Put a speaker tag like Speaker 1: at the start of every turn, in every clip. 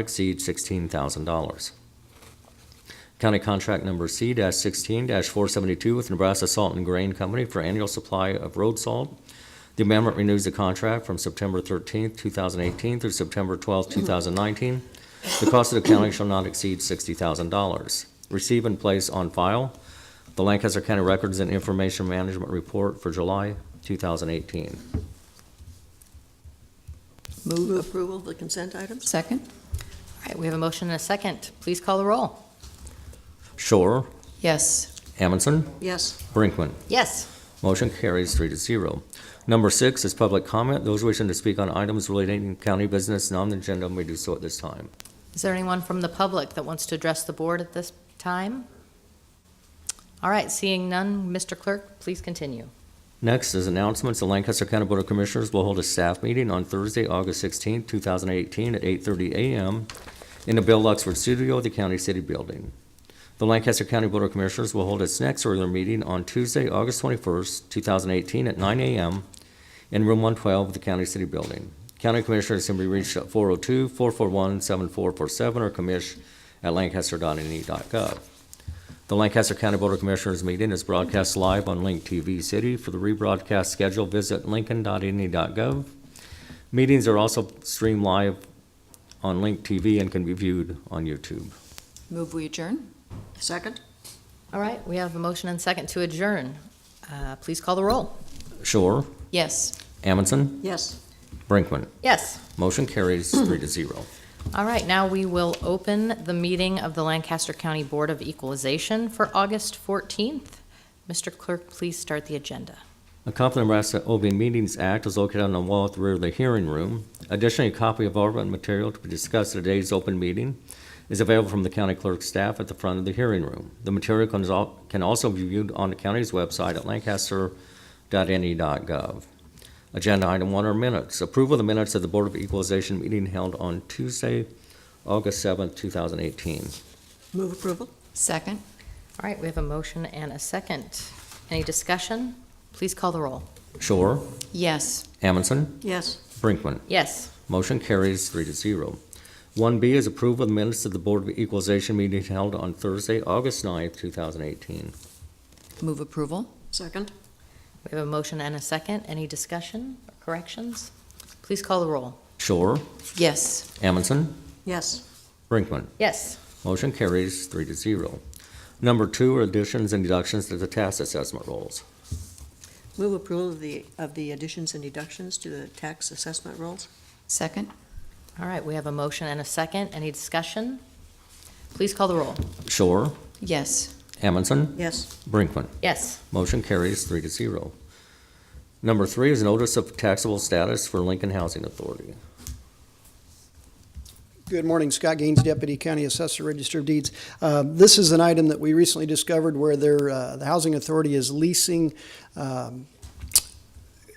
Speaker 1: exceed $16,000. County contract number C-16-472 with Nebraska Salt and Grain Company for annual supply of road salt. The amendment renews the contract from September 13, 2018 through September 12, 2019. The cost of the county shall not exceed $60,000. Receive and place on file the Lancaster County Records and Information Management Report for July 2018.
Speaker 2: Move approval of the consent items?
Speaker 3: Second?
Speaker 4: All right, we have a motion and a second. Please call the roll.
Speaker 1: Shore,
Speaker 3: Yes.
Speaker 1: Amundson,
Speaker 2: Yes.
Speaker 1: Brinkman.
Speaker 4: Yes.
Speaker 1: Motion carries three to zero. Number six is public comment. Those wishing to speak on items relating to county business and on the agenda may do so at this time.
Speaker 4: Is there anyone from the public that wants to address the board at this time? All right, seeing none, Mr. Clerk, please continue.
Speaker 1: Next is announcements. The Lancaster County Board of Commissioners will hold a staff meeting on Thursday, August 16, 2018, at 8:30 a.m. in the Bill Luxford Studio of the County City Building. The Lancaster County Board of Commissioners will hold its next regular meeting on Tuesday, August 21, 2018, at 9 a.m. in Room 112 of the County City Building. County Commissioners can be reached at 402-441-7447 or E commish@lancaster.ne.gov. The Lancaster County Board of Commissioners meeting is broadcast live on Link TV City. For the rebroadcast schedule, visit lincoln.ne.gov. E Meetings are also streamed live on Link TV and can be viewed on YouTube.
Speaker 3: Move we adjourn?
Speaker 2: Second?
Speaker 4: All right, we have a motion and second to adjourn. Uh, Please call the roll.
Speaker 1: Shore,
Speaker 3: Yes.
Speaker 1: Amundson,
Speaker 2: Yes.
Speaker 1: Brinkman.
Speaker 4: Yes.
Speaker 1: Motion carries three to zero.
Speaker 4: All right, now we will open the meeting of the Lancaster County Board of Equalization for August 14th. Mr. Clerk, please start the agenda.
Speaker 1: A copy of the Nebraska Open Meetings Act is located on the wall at the rear of the hearing room. Additionally, a copy of all relevant material to be discussed at today's open meeting is available from the county clerk's staff at the front of the hearing room. The material can al- can also be viewed on the county's website at lancaster.ne.gov. E Agenda item one are minutes. Approval of the minutes of the Board of Equalization meeting held on Tuesday, August 7th, 2018.
Speaker 2: Move approval?
Speaker 3: Second?
Speaker 4: All right, we have a motion and a second. Any discussion? Please call the roll.
Speaker 1: Shore,
Speaker 3: Yes.
Speaker 1: Amundson,
Speaker 2: Yes.
Speaker 1: Brinkman.
Speaker 4: Yes.
Speaker 1: Motion carries three to zero. One B is approval of the minutes of the Board of Equalization meeting held on Thursday, August 9th, two thousand eighteen.
Speaker 3: Move approval?
Speaker 2: Second?
Speaker 4: We have a motion and a second. Any discussion or corrections? Please call the roll.
Speaker 1: Shore,
Speaker 3: Yes.
Speaker 1: Amundson,
Speaker 2: Yes.
Speaker 1: Brinkman.
Speaker 4: Yes.
Speaker 1: Motion carries three to zero. Number two are additions and deductions to the tax assessment rolls.
Speaker 2: Move approval of the, of the additions and deductions to the tax assessment rolls?
Speaker 3: Second?
Speaker 4: All right, we have a motion and a second. Any discussion? Please call the roll.
Speaker 1: Shore,
Speaker 3: Yes.
Speaker 1: Amundson,
Speaker 2: Yes.
Speaker 1: Brinkman.
Speaker 4: Yes.
Speaker 1: Motion carries three to zero. Number three is notice of taxable status for Lincoln Housing Authority.
Speaker 5: Good morning, Scott Gaines, Deputy County Assessor, Register of Deeds. Uh, This is an item that we recently discovered where there, uh, the Housing Authority is leasing um,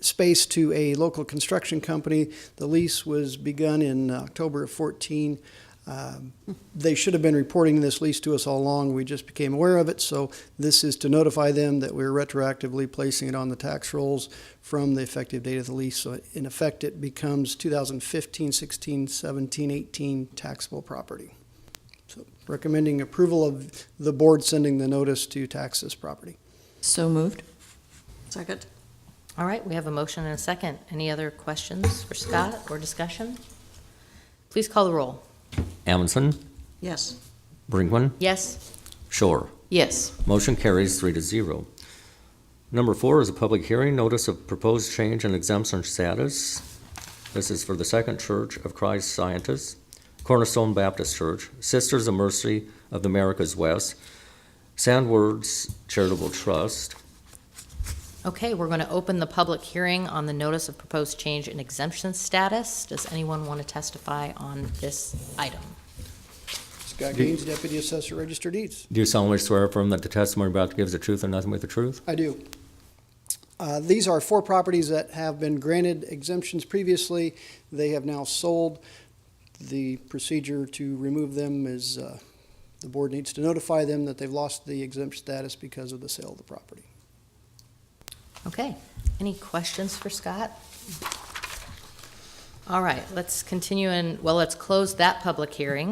Speaker 5: space to a local construction company. The lease was begun in October of 14. Um, They should have been reporting this lease to us all along. We just became aware of it, so this is to notify them that we're retroactively placing it on the tax rolls from the effective date of the lease. So in effect, it becomes 2015, 16, 17, 18 taxable property. So Recommending approval of the board sending the notice to tax this property.
Speaker 3: So moved?
Speaker 2: Second?
Speaker 4: All right, we have a motion and a second. Any other questions for Scott or discussion? Please call the roll.
Speaker 1: Amundson,
Speaker 2: Yes.
Speaker 1: Brinkman,
Speaker 4: Yes.
Speaker 1: Shore.
Speaker 3: Yes.
Speaker 1: Motion carries three to zero. Number four is a public hearing, notice of proposed change in exemption status. This is for the Second Church of Christ Scientists, Cornerstone Baptist Church, Sisters of Mercy of the Americas West, Sandwords Charitable Trust.
Speaker 4: Okay, we're going to open the public hearing on the notice of proposed change in exemption status. Does anyone want to testify on this item?
Speaker 5: Scott Gaines, Deputy Assessor, Register of Deeds.
Speaker 1: Do you solemnly swear affirm that the testimony you're about to give is the truth and nothing but the truth?
Speaker 5: I do. Uh, These are four properties that have been granted exemptions previously. They have now sold. The procedure to remove them is, uh, the board needs to notify them that they've lost the exempt status because of the sale of the property.
Speaker 4: Okay, any questions for Scott? All right, let's continue and, well, let's close that public hearing.